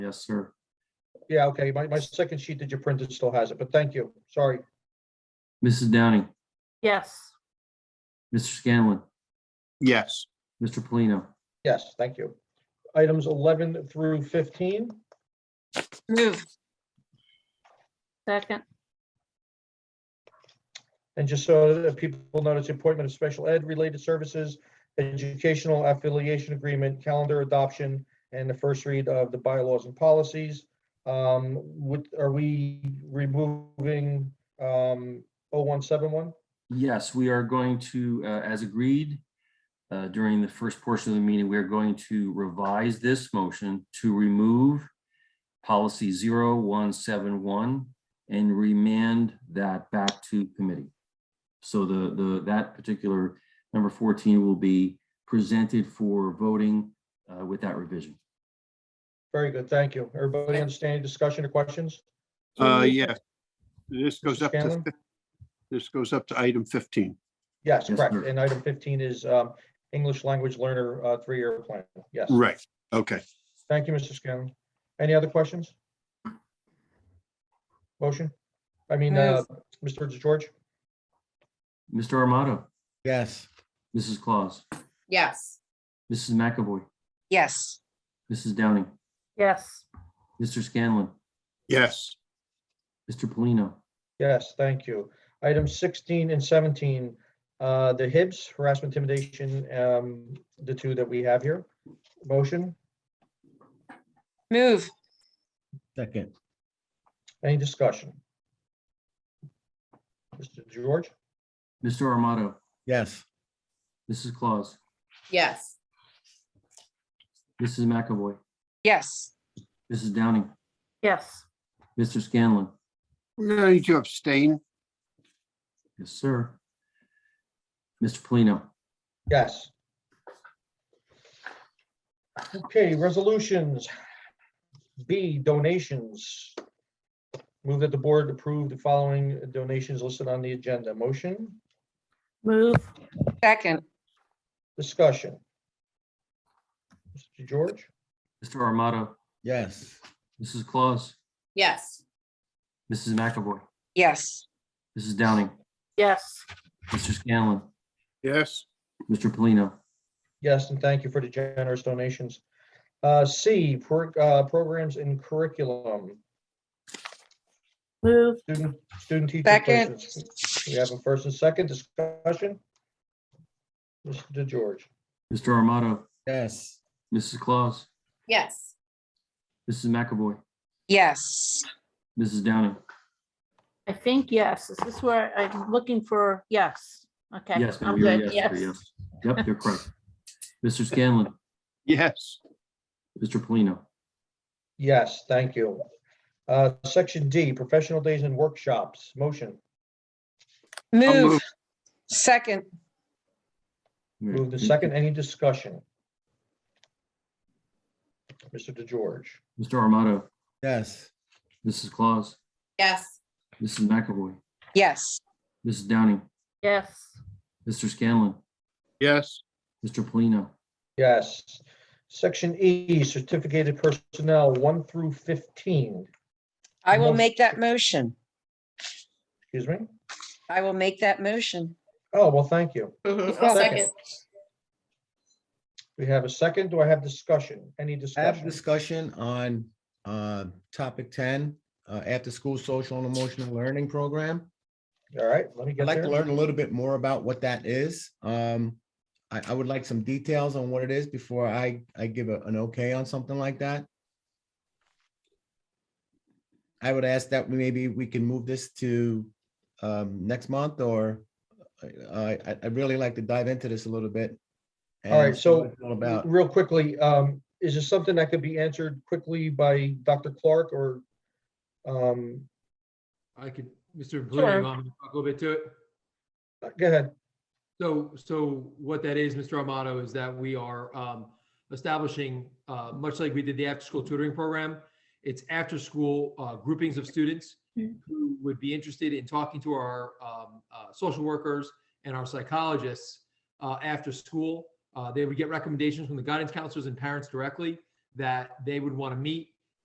Yes, sir. Yeah, okay, my, my second sheet that you printed still has it, but thank you, sorry. Mrs. Downing, Yes, Mr. Scanlon, Yes, Mr. Polino. Yes, thank you. Items 11 through 15, Move, second, and just so that people notice, the appointment of special ed related services, educational affiliation agreement, calendar adoption, and the first read of the bylaws and policies. Um, What, are we removing um, 0171? Yes, we are going to, uh, as agreed, uh, during the first portion of the meeting, we are going to revise this motion to remove policy 0171 and remand that back to committee. So the, the, that particular number 14 will be presented for voting uh, with that revision. Very good, thank you. Everybody understand, any discussion or questions? uh, yeah. This goes up to, Scanlon? fif- this goes up to item fifteen. Yes, Yes, correct. sir. And item 15 is um, English language learner uh, three-year plan, yes. Right, okay. Thank you, Mr. Scanlon. Any other questions? Motion? I mean, uh, Mr. George? Mr. Armato, Yes, Mrs. Claus, yes. Mrs. McAvoy, Yes. Mrs. Downing, yes, Mr. Scanlon, Yes, Mr. Polino. Yes, thank you. Items 16 and 17, uh, the HIBs, harassment intimidation, um, the two that we have here. Motion? Move, second, Any discussion? Mr. George? Mr. Armato, yes, Mrs. Claus, yes. Mrs. McAvoy, Yes. Mrs. Downing, yes, Mr. Scanlon. we're gonna need to abstain. Yes, sir. Mr. Polino. Yes. Okay, resolutions. B, donations. Move that the board approve the following donations listed on the agenda. Motion, move, Second, discussion. Mr. George? Mr. Armato, yes, Mrs. Claus, yes. Mrs. McAvoy, Yes. Mrs. Downing, yes, Mr. Scanlon, Yes, Mr. Polino. Yes, and thank you for the generous donations. Uh, C, pro- uh, programs and curriculum, move, student, student teacher Second. placements. We have a first and second discussion. Mr. George? Mr. Armato, yes, Mrs. Claus, Yes. Mrs. McAvoy, Yes. Mrs. Downing. I think yes, is this where I'm looking for, yes, okay. Yes, ma'am, I'm you're a good, yes, you're a yes. Yep, you're correct. Mr. Scanlon, yes, Mr. Polino. Yes, thank you. Uh, Section D, professional days and workshops, motion, I'll Move, move. second, move the second, any discussion? Mr. DeGeorge, Mr. Armato, yes, Mrs. Claus, yes. Mrs. McAvoy, Yes. Mrs. Downing, Yes, Mr. Scanlon, yes, Mr. Polino. yes. Section E, certificated personnel, one through fifteen, I will Motion. make that motion. excuse me? I will make that motion. Oh, well, thank you. I'll second. We have a second, do I have discussion, any I have discussion? discussion on uh topic ten, uh after-school social and emotional learning program. All right, let me get I'd like to there. learn a little bit more about what that is. Um, I I would like some details on what it is before I I give a- an okay on something like that. I would ask that we maybe we can move this to um next month or I I I'd really like to dive into this a little bit. All right, and see what so- it's all About. Real quickly, um, is this something that could be answered quickly by Dr. Clark or? um, I could, Mr. Polino, Sure. you want me to talk a little bit to it? Go ahead. So, so what that is, Mr. Amato, is that we are um, establishing, uh, much like we did the after-school tutoring program, it's after-school uh, groupings of students who would be interested in talking to our um, uh, social workers and our psychologists uh, after school. Uh, They would get recommendations from the guidance counselors and parents directly that they would want to meet